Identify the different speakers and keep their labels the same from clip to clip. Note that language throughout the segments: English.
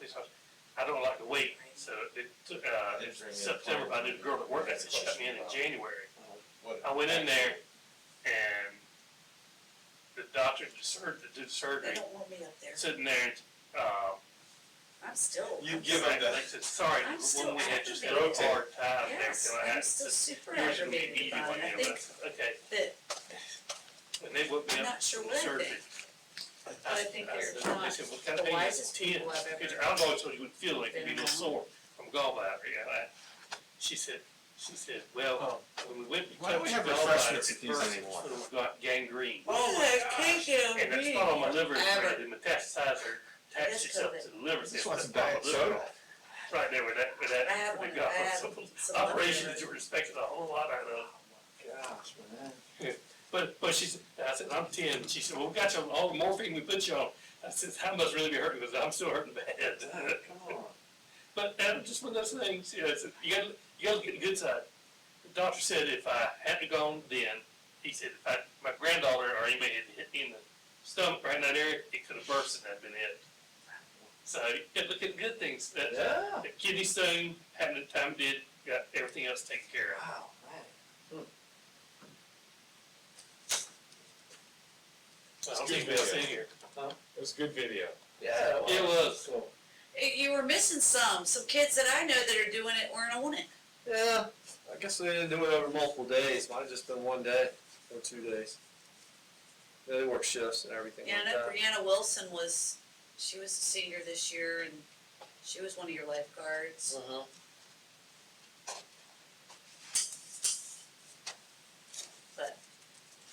Speaker 1: this, I, I don't like to wait, so it, took, uh, it's September, but I did a girl at work, I said, shut me in in January.
Speaker 2: What-
Speaker 1: I went in there and the doctor that sur- that did
Speaker 3: They
Speaker 1: surgery,
Speaker 3: don't want me up there.
Speaker 1: sitting there, uh,
Speaker 3: I'm still.
Speaker 2: You give them
Speaker 1: I
Speaker 2: that,
Speaker 1: said, sorry,
Speaker 3: I'm
Speaker 1: when
Speaker 3: still
Speaker 1: we had just had a
Speaker 2: aggravated.
Speaker 1: hard time there,
Speaker 3: Yes,
Speaker 1: so I
Speaker 3: I'm
Speaker 1: had
Speaker 3: still
Speaker 1: to.
Speaker 3: super
Speaker 1: Here's your
Speaker 3: aggravated
Speaker 1: meeting,
Speaker 3: about
Speaker 1: one
Speaker 3: it. I
Speaker 1: day,
Speaker 3: think
Speaker 1: but- okay,
Speaker 3: that,
Speaker 1: and they woke me
Speaker 3: I'm
Speaker 1: up
Speaker 3: not sure
Speaker 1: from
Speaker 3: what I
Speaker 1: surgery.
Speaker 3: think.
Speaker 1: I
Speaker 4: I
Speaker 1: said-
Speaker 4: think
Speaker 1: I
Speaker 4: they're
Speaker 1: said-
Speaker 4: not
Speaker 1: They said, what kind of
Speaker 4: the
Speaker 1: pain is
Speaker 4: wisest
Speaker 1: ten?
Speaker 4: people I've ever
Speaker 1: Because I know it's what you would feel like, you'd be a
Speaker 4: been
Speaker 1: little sore from gallbladder, yeah, I- she said, she said, well, when we went.
Speaker 2: Oh. Why don't we have
Speaker 1: gallbladder
Speaker 2: refreshments at these
Speaker 1: first,
Speaker 2: anymore?
Speaker 1: when we got gangrene.
Speaker 2: Oh my gosh.
Speaker 1: And it's not on my liver,
Speaker 3: I haven't-
Speaker 1: it metastasized or
Speaker 3: That's
Speaker 1: attached itself
Speaker 3: COVID.
Speaker 1: to the liver.
Speaker 2: This
Speaker 1: so it's
Speaker 2: one's
Speaker 1: not my
Speaker 2: diet
Speaker 1: liver.
Speaker 2: soda.
Speaker 1: Right there with that, with that.
Speaker 3: I have one,
Speaker 1: with
Speaker 3: I
Speaker 1: that-
Speaker 3: have
Speaker 1: some
Speaker 3: some.
Speaker 1: Operation that you respected a whole lot out of.
Speaker 2: Gosh, man.
Speaker 1: But, but she said, I said, I'm ten, she said, well, we got you on all the morphine we put you on. I said, I must really be hurting, because I'm still hurting bad.
Speaker 2: Come on.
Speaker 1: But that was just one of those things, you know, it's, you gotta, you gotta get the good side. The doctor said if I hadn't gone then, he said if I, my granddaughter or anybody had hit me in the stomach right in that area, it could have burst and that'd been it. So, yeah, look at the good things, that,
Speaker 2: Yeah.
Speaker 1: the kidney stone, having the time did, got everything else taken care of.
Speaker 2: Wow, man.
Speaker 1: So I don't think we'll see here.
Speaker 5: It was a good video.
Speaker 2: Yeah.
Speaker 1: It was,
Speaker 2: Cool.
Speaker 3: Eh, you were missing some, some kids that I know that are doing it weren't on it.
Speaker 2: Yeah, I guess they didn't do it over multiple days, might have just been one day or two days. Yeah, They work shifts and everything
Speaker 3: Yeah, I
Speaker 2: like
Speaker 3: know
Speaker 2: that.
Speaker 3: Brianna Wilson was, she was a senior this year and she was one of your lifeguards.
Speaker 2: Uh-huh.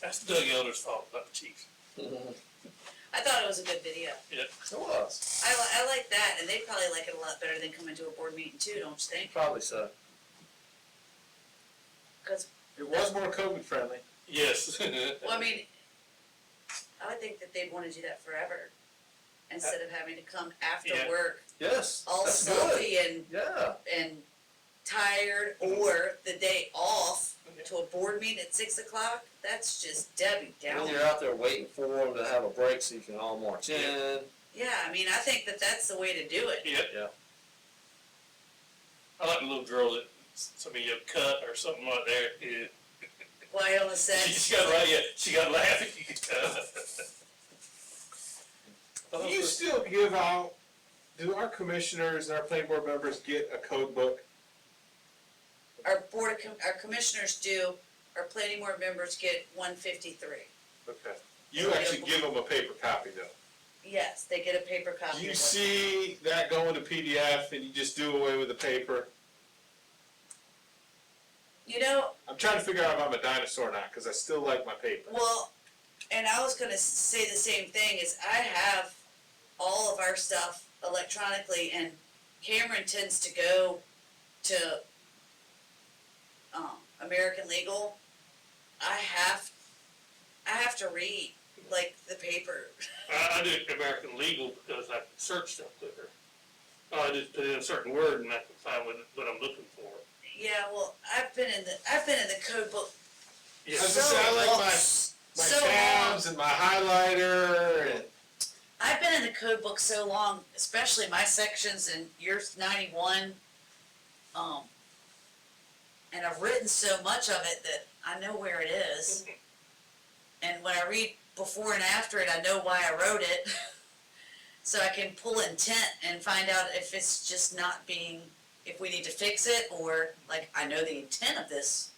Speaker 1: that's Doug Elder's fault, not the chief.
Speaker 2: It
Speaker 3: I thought it was a good video.
Speaker 2: was,
Speaker 3: I, li- I like that and they probably like it a lot better than coming to a board meeting too, don't you think?
Speaker 2: probably so.
Speaker 3: Cause,
Speaker 2: It was more COVID friendly.
Speaker 1: Yes.
Speaker 3: well, I mean, I would think that they'd wanna do that forever. Instead of having to come after
Speaker 1: Yeah.
Speaker 3: work,
Speaker 2: Yes,
Speaker 3: all
Speaker 2: that's good.
Speaker 3: salty and
Speaker 2: Yeah,
Speaker 3: and tired or the day off to a board meeting at six o'clock, that's just Debbie
Speaker 2: then
Speaker 3: Downer.
Speaker 2: you're out there waiting for them to have a break so you can all march
Speaker 1: Yeah.
Speaker 2: in.
Speaker 3: Yeah, I mean, I think that that's the way to do it.
Speaker 1: Yep.
Speaker 2: Yeah.
Speaker 1: I like the little girl that somebody you cut or something like there. Yeah.
Speaker 3: Wyona
Speaker 1: She
Speaker 3: said,
Speaker 1: just got right. Yeah, she got laughing. You could tell.
Speaker 5: You still give out, do our commissioners and our planning board members get a code book?
Speaker 3: our board, of com- our commissioners do, our planning board members get one fifty-three.
Speaker 5: Okay. You actually give them a paper copy though.
Speaker 3: Yes, they get a paper copy.
Speaker 5: You
Speaker 3: of it.
Speaker 5: see that going to PDF and you just do away with the paper?
Speaker 3: You know,
Speaker 5: I'm trying to figure out if I'm a dinosaur or not, cause I still like my paper.
Speaker 3: Well, and I was gonna say the same thing, is I have all of our stuff electronically and Cameron tends to go to um, American Legal. I have, I have to read, like, the paper.
Speaker 1: I, I do American Legal because I can search stuff quicker. I just put in a certain word and I can find what, what I'm looking for.
Speaker 3: Yeah, well, I've been in the, I've been in the code book
Speaker 1: Yeah.
Speaker 5: I was
Speaker 3: so
Speaker 5: just saying, I like my-
Speaker 3: long.
Speaker 5: My
Speaker 3: So uh, long.
Speaker 5: tabs and my highlighter and.
Speaker 3: I've been in the code book so long, especially my sections and yours ninety-one, um, and I've written so much of it that I know where it is. And when I read before and after it, I know why I wrote it. So I can pull intent and find out if it's just not being, if we need to fix it, or like, I know the intent of this.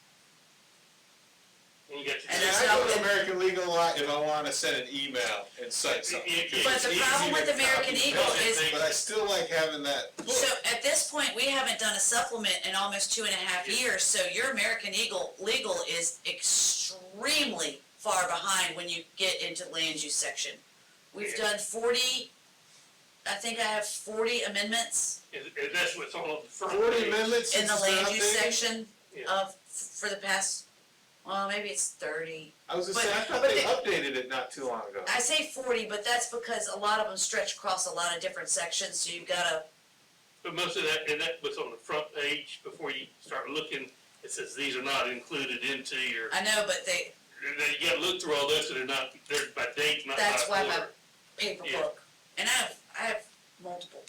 Speaker 1: And you got to.
Speaker 3: And
Speaker 5: Yeah,
Speaker 3: there's
Speaker 5: I go to
Speaker 3: nothing-
Speaker 5: American Legal a lot if I wanna send an email and cite something.
Speaker 1: It- it-
Speaker 3: But
Speaker 1: it's
Speaker 3: the
Speaker 1: easy
Speaker 3: problem
Speaker 1: to
Speaker 3: with American
Speaker 1: copy
Speaker 3: Eagle
Speaker 1: paste
Speaker 3: is-
Speaker 1: things.
Speaker 5: But I still like having that book.
Speaker 3: So at this point, we haven't done a supplement in almost two and a half years, so your American Eagle legal is extremely far behind when you get into land use section. We've
Speaker 1: Yeah.
Speaker 3: done forty, I think I have forty amendments
Speaker 1: And, and that's what's on the front.
Speaker 5: Forty
Speaker 1: page.
Speaker 5: amendments
Speaker 3: in
Speaker 5: since
Speaker 3: the
Speaker 5: it's
Speaker 3: land
Speaker 5: been
Speaker 3: use
Speaker 5: updated?
Speaker 3: section
Speaker 1: Yeah.
Speaker 3: of, for the past, well, maybe it's thirty.
Speaker 5: I was gonna
Speaker 3: But-
Speaker 5: say, I thought
Speaker 3: but
Speaker 5: they
Speaker 3: they-
Speaker 5: updated it not too long ago.
Speaker 3: I say forty, but that's because a lot of them stretch across a lot of different sections, so you've gotta,
Speaker 1: But most of that, and that was on the front page before you start looking, it says these are not included into your,
Speaker 3: I know, but they,
Speaker 1: that you gotta look through all this, and they're not, they're by date, not by
Speaker 3: That's why my-
Speaker 1: order.
Speaker 3: paper
Speaker 1: Yeah.
Speaker 3: book. And I have, I have multiple.